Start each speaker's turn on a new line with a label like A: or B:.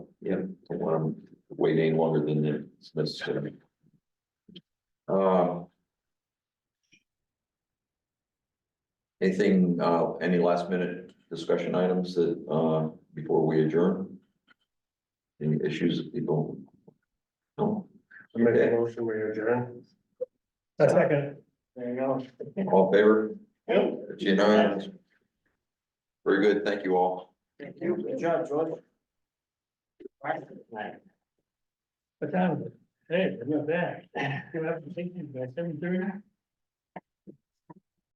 A: Yeah, don't want them wait any longer than it's necessary. Uh, Anything, uh, any last minute discussion items that, uh, before we adjourn? Any issues that people? No,
B: I'm making a motion, we adjourn.
C: A second.
B: There you go.
A: all in favor,
B: Yep.
A: It's unanimous. Very good, thank you all.
B: Thank you, good job, George.
C: What time is it? Hey, we're back. You have to take you by seven thirty?